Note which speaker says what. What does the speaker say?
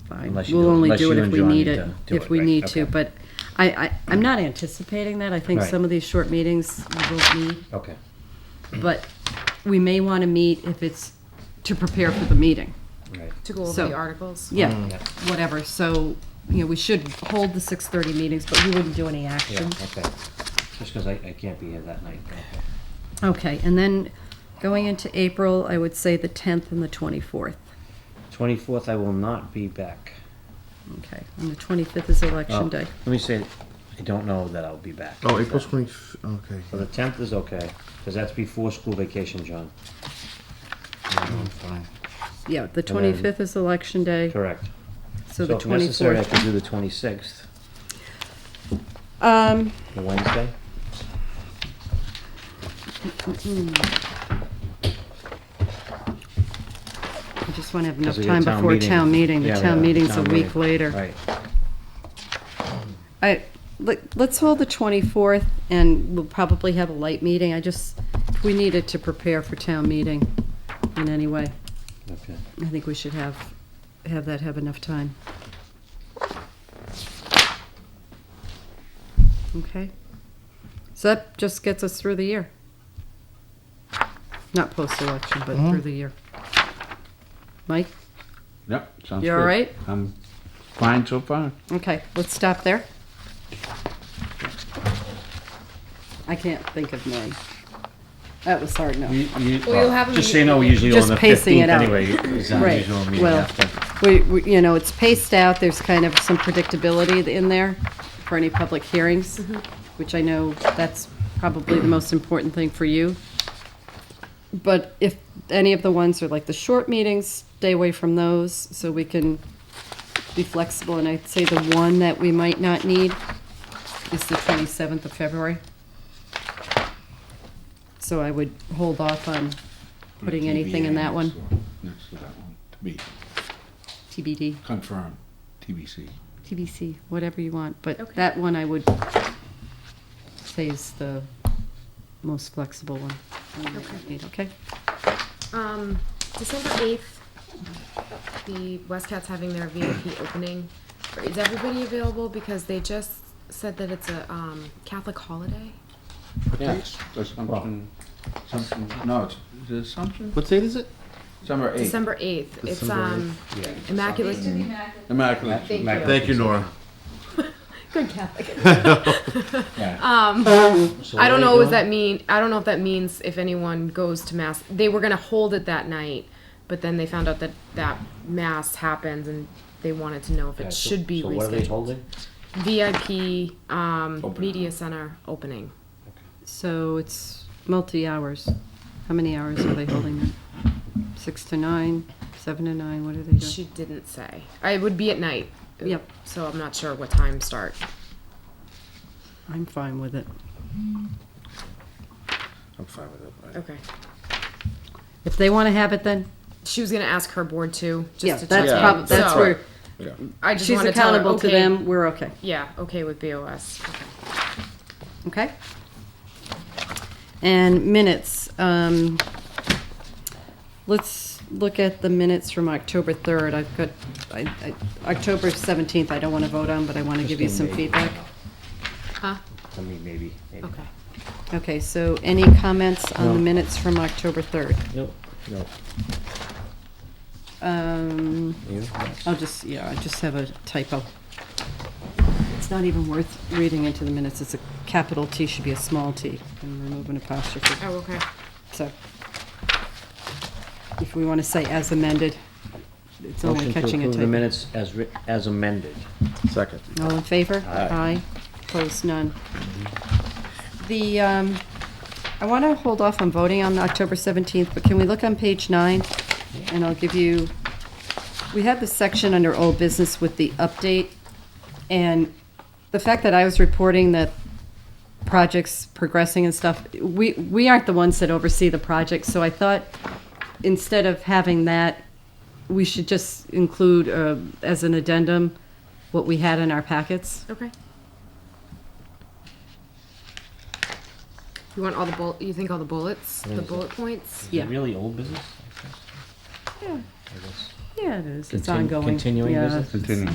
Speaker 1: fine.
Speaker 2: Unless you
Speaker 1: We'll
Speaker 2: do-
Speaker 1: only
Speaker 2: unless
Speaker 1: do it
Speaker 2: you
Speaker 1: if
Speaker 2: and
Speaker 1: we
Speaker 2: John
Speaker 1: need
Speaker 2: need
Speaker 1: it,
Speaker 2: to do
Speaker 1: if
Speaker 2: it,
Speaker 1: we
Speaker 2: right,
Speaker 1: need to,
Speaker 2: okay.
Speaker 1: but I, I, I'm not anticipating that. I think
Speaker 2: Right.
Speaker 1: some of these short meetings we will need,
Speaker 2: Okay. Mm-hmm.
Speaker 1: but we may want to meet if it's to prepare for the meeting.
Speaker 2: Right.
Speaker 3: To go over
Speaker 1: So-
Speaker 3: the articles?
Speaker 1: Yeah,
Speaker 2: Mm. Yeah.
Speaker 1: whatever. So, you know, we should hold the 6:30 meetings, but we wouldn't do any
Speaker 2: Yeah,
Speaker 1: action.
Speaker 2: okay. Just because I, I can't be here that night. Okay.
Speaker 1: Okay, and then going into April, I would say the 10th and the 24th.
Speaker 2: Twenty-fourth, I will not be back.
Speaker 1: Okay, and the 25th is
Speaker 2: Oh,
Speaker 1: election day.
Speaker 2: Let me say, I don't know that I'll be back.
Speaker 4: Oh, April twenty. Okay.
Speaker 2: So the tenth is okay, because that's before school vacation, John.
Speaker 4: I'm fine.
Speaker 1: Yeah, the
Speaker 2: then-
Speaker 1: 25th is election day,
Speaker 2: Correct.
Speaker 1: so the
Speaker 2: if necessary, I
Speaker 1: 24th.
Speaker 2: can do the twenty-sixth,
Speaker 1: Um,
Speaker 2: the Wednesday.
Speaker 1: I just want to have enough
Speaker 2: 'cause we got
Speaker 1: time before town meeting. The
Speaker 2: Yeah, we
Speaker 1: town
Speaker 2: got
Speaker 1: meeting's a
Speaker 2: town
Speaker 1: week
Speaker 2: meeting.
Speaker 1: later.
Speaker 2: Right.
Speaker 1: I, let- let's hold the 24th, and we'll probably have a light meeting. I just, we needed to prepare for town meeting in any way.
Speaker 2: Okay.
Speaker 1: I think we should have, have that have enough time. Okay. So that just gets us through the year. Not post-election, but
Speaker 2: Mm-hmm.
Speaker 1: through the year. Mike?
Speaker 4: Yep. Sounds
Speaker 1: You all
Speaker 4: good.
Speaker 1: right?
Speaker 4: I'm fine so far.
Speaker 1: Okay, let's stop there. I can't think of mine. That was hard enough.
Speaker 3: Well, you'll have a
Speaker 2: Just so you know, we're usually
Speaker 1: Just
Speaker 2: on the
Speaker 1: pacing
Speaker 2: fifteenth
Speaker 1: it out.
Speaker 2: anyway. is our
Speaker 1: Right,
Speaker 2: usual meeting
Speaker 1: well,
Speaker 2: after.
Speaker 1: we, we- you know, it's paced out, there's kind of some predictability in there for any public hearings, which I know that's probably the most important thing for you. But if any of the ones are like the short meetings, stay away from those, so we can be flexible. And I'd say the one that we might not need is the 27th of February. So I would hold off on putting anything in that one,
Speaker 4: Next to that one, to be
Speaker 1: TBD.
Speaker 4: confirmed, TBC.
Speaker 1: TBC, whatever you want, but
Speaker 3: Okay.
Speaker 1: that one I would say is the most flexible one. one that we need, Okay,
Speaker 3: Um, December 8th, the Westcats having their VIP opening. Is everybody available? Because they just said that it's a um, Catholic holiday.
Speaker 4: Yes. Assumption, Assumption, no, it's, is it Assumption?
Speaker 5: What date is it?
Speaker 4: December eighth.
Speaker 3: December 8th. It's um, Immaculate.
Speaker 4: Immaculate.
Speaker 3: Thank
Speaker 2: Immaculate.
Speaker 3: you.
Speaker 5: Thank you, Nora.
Speaker 3: Good Catholic.
Speaker 5: Um,
Speaker 4: Yeah.
Speaker 2: So
Speaker 3: I
Speaker 2: what are they
Speaker 3: don't know what
Speaker 2: doing?
Speaker 3: that mean. I don't know if that means if anyone goes to mass. They were gonna hold it that night, but then they found out that that mass happens, and they wanted to know if
Speaker 2: Yeah,
Speaker 3: it
Speaker 2: so-
Speaker 3: should be
Speaker 2: so what are they
Speaker 3: rescheduled.
Speaker 2: holding?
Speaker 3: VIP um,
Speaker 4: Open.
Speaker 3: media center opening.
Speaker 1: so it's multi-hours. How many hours are they holding them? Six to nine, seven to nine, what are they doing?
Speaker 3: She didn't say. I would be at night.
Speaker 1: Yep.
Speaker 3: So I'm not sure what time start.
Speaker 1: I'm fine with it.
Speaker 4: I'm fine with it. I-
Speaker 3: Okay.
Speaker 1: If they want to have it then,
Speaker 3: She was gonna ask her board too. Just
Speaker 1: yeah,
Speaker 3: to
Speaker 1: that's
Speaker 3: check in.
Speaker 1: prob, that's
Speaker 3: So,
Speaker 1: where,
Speaker 4: Yeah.
Speaker 3: I just
Speaker 1: she's
Speaker 3: wanna tell her,
Speaker 1: accountable to
Speaker 3: okay,
Speaker 1: them, we're okay,
Speaker 3: Yeah. Okay with BOS. Okay.
Speaker 1: okay? And minutes, um, Let's look at the minutes from October 3rd. I've got, I, I, October 17th, I don't want to vote on, but I want to give you some
Speaker 2: Maybe.
Speaker 1: feedback.
Speaker 3: Huh?
Speaker 2: I mean, maybe, maybe.
Speaker 3: Okay.
Speaker 1: Okay, so any comments on the
Speaker 2: No.
Speaker 1: minutes from October 3rd?
Speaker 2: Nope, nope.
Speaker 1: Um,
Speaker 2: You?
Speaker 1: I'll just, yeah, I just have a typo. It's not even worth reading into the minutes. It's a capital T should be a small t, and remove an apostrophe.
Speaker 3: Oh, okay.
Speaker 1: So if we want to say as amended, it's only
Speaker 2: Motion to
Speaker 1: catching a
Speaker 2: approve
Speaker 1: typo.
Speaker 2: The minutes as writ, as amended.
Speaker 4: Second.
Speaker 1: All in favor?
Speaker 4: Aye.
Speaker 1: Opposed, none. The, um, I want to hold off on voting on October 17th, but can we look on page nine? And I'll give you, we have this section under old business with the update. And the fact that I was reporting that projects progressing and stuff, we, we aren't the ones that oversee the project, so I thought instead of having that, we should just include, uh, as an addendum, what we had in our packets.
Speaker 3: Okay. You want all the bullet, you think all the bullets, the bullet points?
Speaker 2: Is it
Speaker 1: Yeah.
Speaker 2: Really old business?
Speaker 3: Yeah.
Speaker 2: I guess.
Speaker 6: Yeah, it is. It's
Speaker 1: Contin-
Speaker 6: ongoing.
Speaker 1: continuing
Speaker 6: Yeah,
Speaker 1: business?
Speaker 6: it's-
Speaker 2: Continuing.